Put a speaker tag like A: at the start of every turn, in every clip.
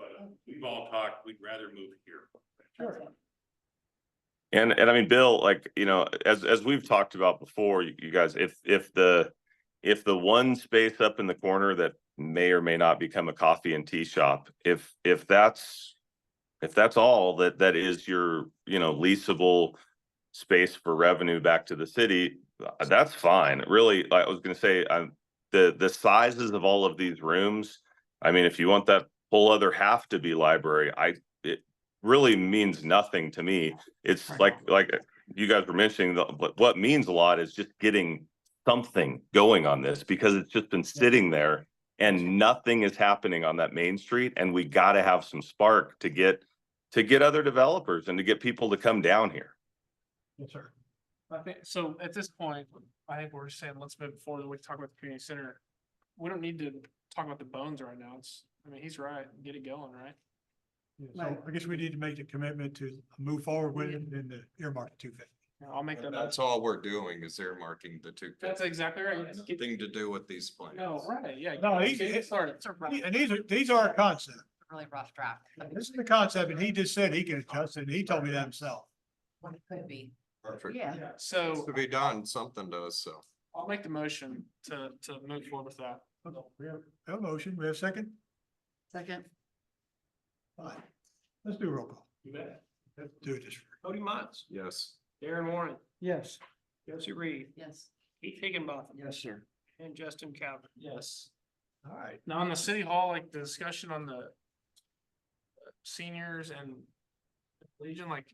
A: uh, we've all talked, we'd rather move here.
B: Sure.
C: And, and I mean, Bill, like, you know, as, as we've talked about before, you, you guys, if, if the, if the one space up in the corner that may or may not become a coffee and tea shop, if, if that's, if that's all that, that is your, you know, leasable space for revenue back to the city, uh, that's fine. Really, I was gonna say, um, the, the sizes of all of these rooms, I mean, if you want that whole other half to be library, I, it really means nothing to me it's
B: Right.
C: like, like uh, you guys were mentioning, the- but what means a lot is just getting something going on this because it's just been sitting there and nothing is happening on that main street and we gotta have some spark to get, to get other developers and to get people to come down here.
B: Yes, sir. I think, so at this point, I think we're saying, let's move forward, we talk about the community center. We don't need to talk about the bones right now, it's, I mean, he's right, get it going, right?
D: Yeah,
E: Right.
D: So I guess we need to make the commitment to move forward with it in the earmark two fifty.
B: Yeah, I'll make that.
E: And that's
B: motion.
E: all we're doing is earmarking the two.
B: uh, That's exactly right. Let's get-
E: Thing to do with these plans.
B: No, right, yeah.
D: No, he's-
B: get it started.
D: And these are, these are a concept.
E: Really rough draft.
D: This is the concept and he just said he can adjust it. and He told me that himself.
E: What it could be. Perfect.
F: Yeah,
B: Yeah,
E: Needs
B: So
E: To be done, something does, so.
B: I'll make the motion to, to move forward with that.
D: We have a motion, we have a second?
F: second.
D: Fine. Let's do a roll call.
B: You bet.
D: Let's Do it this. way.
B: Cody Mons,
E: Yes.
B: Darren Warren,
G: Yes.
B: Josie Reed,
F: Yes.
B: Keith Higginbotham,
G: Yes, sir.
B: and Justin Calvin. Yes.
D: All right.
B: Now on the city hall, like the discussion on the uh, seniors and Legion, like,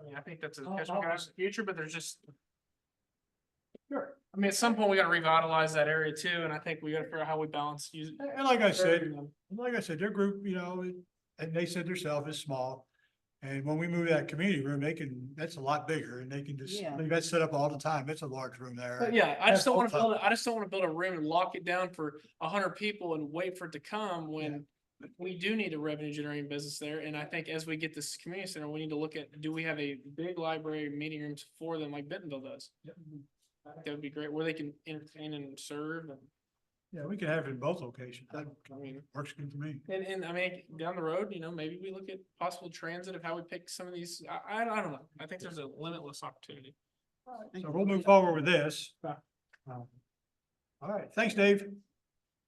B: I mean, I think that's a discussion we gotta have in the future, but there's just. Sure. I mean, at some point, we gotta revitalize that area too, and I think we gotta figure out how we balance use.
D: And and like I said,
B: serving them.
D: And Like I said, their group, you know, it- and they said their self is small. And when we move that community room, they can, that's a lot bigger and they can just,
F: Yeah.
D: leave that set up all the time. It's a large room
B: But
D: there.
B: yeah, I just
D: That's
B: don't wanna
D: full
B: build, I just don't wanna build a room and lock it down for a hundred people and wait for it to come when. We do need a revenue generating business there, and I think as we get this community center, we need to look at, do we have a big library meeting rooms for them like Bentonville does? I think That would be great, where they can entertain and serve and,
D: Yeah, we can have it in both locations. That
B: I mean,
D: works good for me.
B: and, and I mean, down the road, you know, maybe we look at possible transit of how we pick some of these, I, I, I don't know. I think there's a limitless opportunity.
D: So we'll move forward with this.
B: Yeah.
D: Um, All right, thanks, Dave.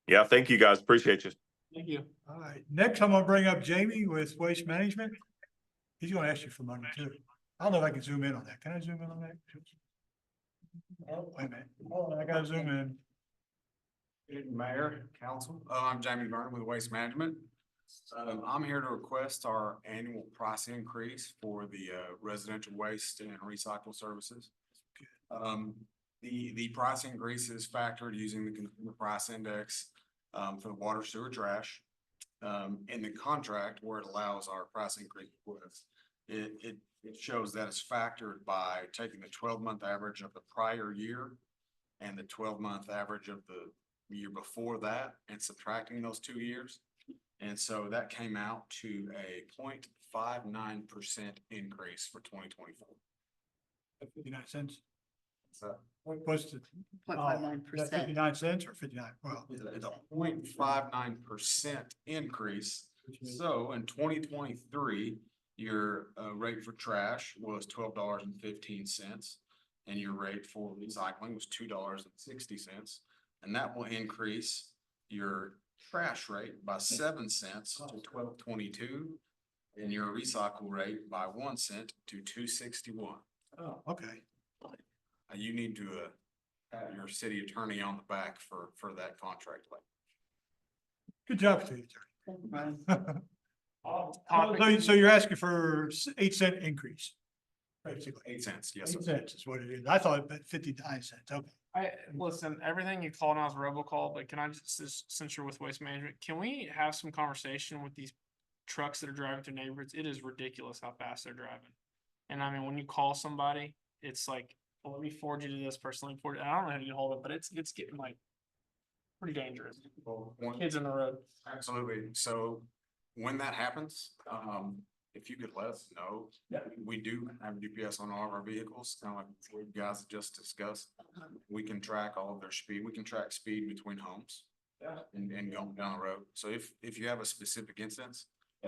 C: Yeah, thank you guys. Appreciate you.
B: Thank you.
D: All right, next I'm gonna bring up Jamie with Waste Management. He's gonna ask you for money too. I don't know if I can zoom in on that. Can I zoom in on that? Oh, wait a minute. Hold on, I gotta zoom in.
H: Mayor, council, uh, I'm Jamie Vernon with Waste Management. Um, I'm here to request our annual price increase for the, uh, residential waste and recycle services. Um, the, the price increase is factored using the consumer price index, um, for the water sewer trash. Um, in the contract where it allows our price increase request, it, it, it shows that it's factored by taking the twelve-month average of the prior year and the twelve-month average of the the year before that and subtracting those two years. And so that came out to a 0.59 percent increase for twenty twenty-four.
D: Fifty-nine cents.
H: So
D: What was the?
F: Point
D: Oh,
F: five nine
D: Is that
F: percent.
D: Fifty-nine cents or fifty-nine, well.
H: it's a- it's a 0.59 percent increase. So in twenty twenty-three, your uh rate for trash was twelve dollars and fifteen cents. And your rate for recycling was two dollars and sixty cents. And that will increase your trash rate by seven cents to twelve twenty-two. And your recycle rate by one cent to two sixty-one.
D: Oh, okay.
H: You need to uh have your city attorney on the back for for that contract. like,
D: Good job, Steve. So, so you're asking for s- eight cent increase? Basically,
H: Eight cents, yes. sir.
D: eight cents is what it is. I thought it meant fifty-nine cents, okay.
B: I, listen, everything you call now is robocall, but can I just, s- since you're with waste management, can we have some conversation with these trucks that are driving through neighborhoods? It is ridiculous how fast they're driving. And I mean, when you call somebody, it's like, well, let me forward you to this person, let me forward, I don't know how to get hold of it, but it's, it's getting like pretty dangerous.
H: Well, one-
B: Kids in the road.
H: Absolutely. So when that happens, um, if you could let us know. We do have GPS on all of our vehicles, kind of like you guys just discussed. We can track all of their speed. We can track speed between homes. And, and going down the road. So if, if you have a specific instance,